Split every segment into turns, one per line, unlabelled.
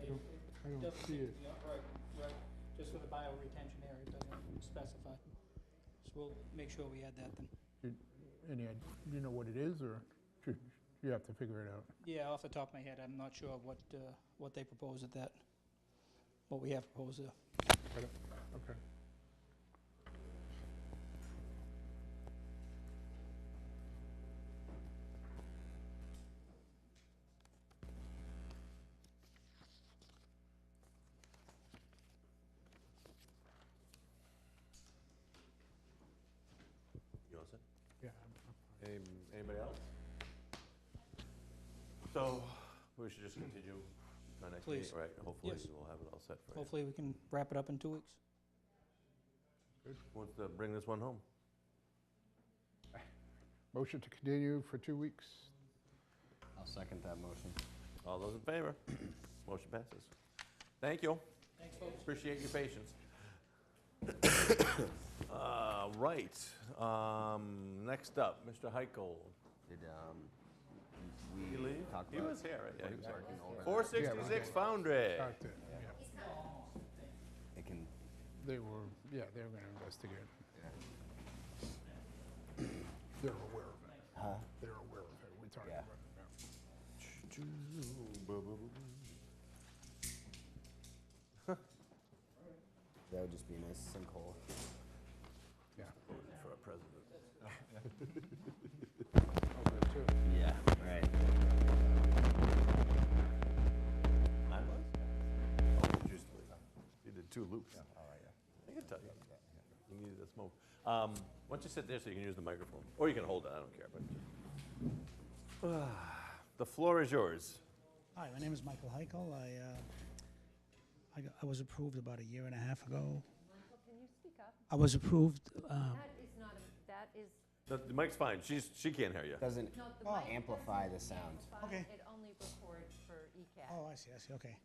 I don't
Doesn't-
see it.
yeah, Right, right, just for the bioretention area, it doesn't specify. So we'll make sure we add that then.
Did- Any, id- do you know what it is, or should- you have to figure it out?
Yeah, off the top of my head, I'm not sure what, uh, what they propose at that, what we have proposed there.
Okay.
You all set?
Yeah.
Any- Anybody else? So, we should just continue our next
Please.
meeting, right? Hopefully,
Yes.
we'll have it all set for you.
Hopefully, we can wrap it up in two weeks.
Wants to bring this one home?
Motion to continue for two weeks.
I'll second that motion.
All those in favor? Motion passes. Thank you.
Thanks, folks.
Appreciate your patience. Uh, Right, um, next up, Mr. Heickel.
Did, um,
He
we
leave?
talk about?
He was here, right? Yeah, he was
Working over.
466 Foundry.
Got it. Yeah.
It can,
They were, yeah, they were going to investigate.
yeah.
They're aware of it. Huh? They're aware of it. We talked
Yeah.
about it now.
that would just be a nice sinkhole.
Yeah.
Voted For a president.
Yeah, right.
I was? Oh, just, you did two loops.
All right, yeah.
I can tell you. You needed a smoke. Um, why don't you sit there so you can use the microphone? Or you can hold it, I don't care, but. The floor is yours.
Hi, my name is Michael Heichel. I, uh, I, got- I was approved about a year and a half ago.
Michael, can you speak up?
I was approved, uh,
That is not, a- that is
The the mic's fine, she's, she can't hear you.
Doesn't
not the mic. doesn't
amplify the sound.
amplify,
Okay.
It only records for E ECAT.
oh, I see, I see, okay.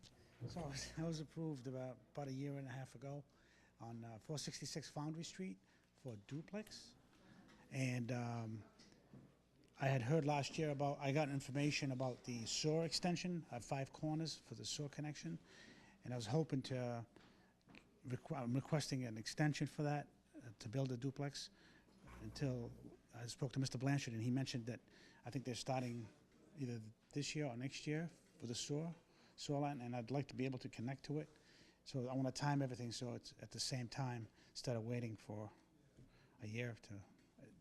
So I was, I was approved about, about a year and a half ago on uh, 466 Foundry Street for duplex. And um, I had heard last year about, I got information about the sewer extension at Five Corners for the sewer connection. And I was hoping to, uh, requ- I'm requesting an extension for that, uh, to build a duplex, until, I spoke to Mr. Blanchard, and he mentioned that, I think they're starting either this year or next year for the sewer, sewer line, and I'd like to be able to connect to it. So I want to time everything so it's at the same time, instead of waiting for a year to,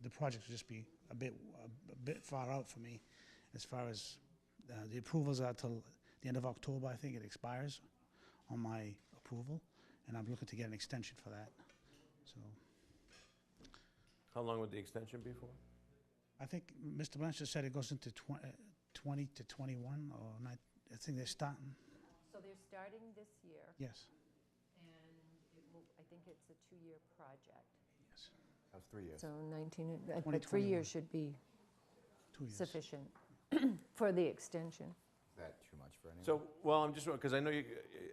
the project will just be a bit, a bit far out for me, as far as, uh, the approvals are till the end of October, I think it expires on my approval, and I'm looking to get an extension for that. So
How long would the extension be for?
I think Mr. Blanchard said it goes into twen- uh, 20 to 21, or not, I think they're starting,
So they're starting this year,
yes,
and it will, I think it's a two-year project.
yes,
That was three years.
So 19, uh, but three
2021.
years should be
two years.
sufficient for the extension.
Is that too much for anyone?
So, well, I'm just, because I know you,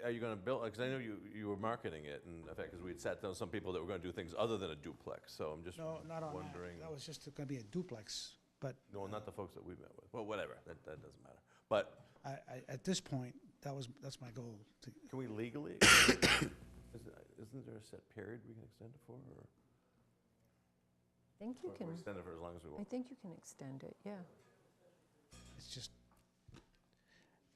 are you going to build, because I know you, you were marketing it, and in fact, because we had sat down with some people that were going to do things other than a duplex, so I'm just
No, not on that,
wondering.
that was just going to be a duplex, but
No, not the folks that we met with. Well, whatever, that, that doesn't matter. But
I, I, at this point, that was, that's my goal, to,
Can we legally? Is- Isn't there a set period we can extend it for, or?
I think you
or
can,
Extend it for as long as we
I
want.
think you can extend it, yeah.
it's just,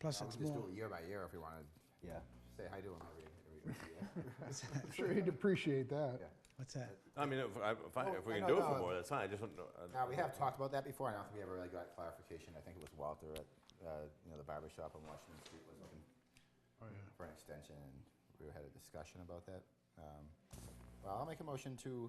plus
Uh,
it's
We just do
more,
it year by year if we wanted.
Yeah.
Say hi to him every, every every year.
I'm sure he'd appreciate that.
Yeah.
what's that?
I mean, if, I- if I- if we
Oh,
can
I
do it
don't
for
know.
more, that's fine, I just want to.
Now, Uh, we have talked about that before, and I don't think we ever really got clarification. I think it was Walter at, uh, you know, the barber shop on Washington Street was looking
Oh, yeah.
for an extension, and we had a discussion about that. Um, Well, I'll make a motion to,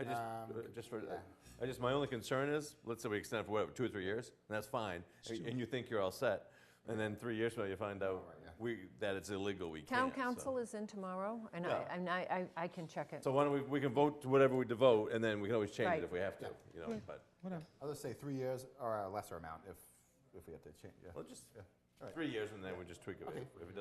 I just,
Um,
uh, just for,
yeah.
I just, my only concern is, let's say we extend it for whatever, two or three years, and that's fine, and and you think you're all set, and then three years from now, you find out
right, yeah.
we, that it's illegal, we
Town
can't. so-
council is in tomorrow, and I,
Yeah.
and I, I I can check it.
So why don't we, we can vote to whatever we devote, and then we can always change it
Right.
if we have to, you know, but,
Whatever,
I'll just say three years uh, or a lesser amount if, if we have to change. yeah.
well, just, three years, and then we just tweak it if if it doesn't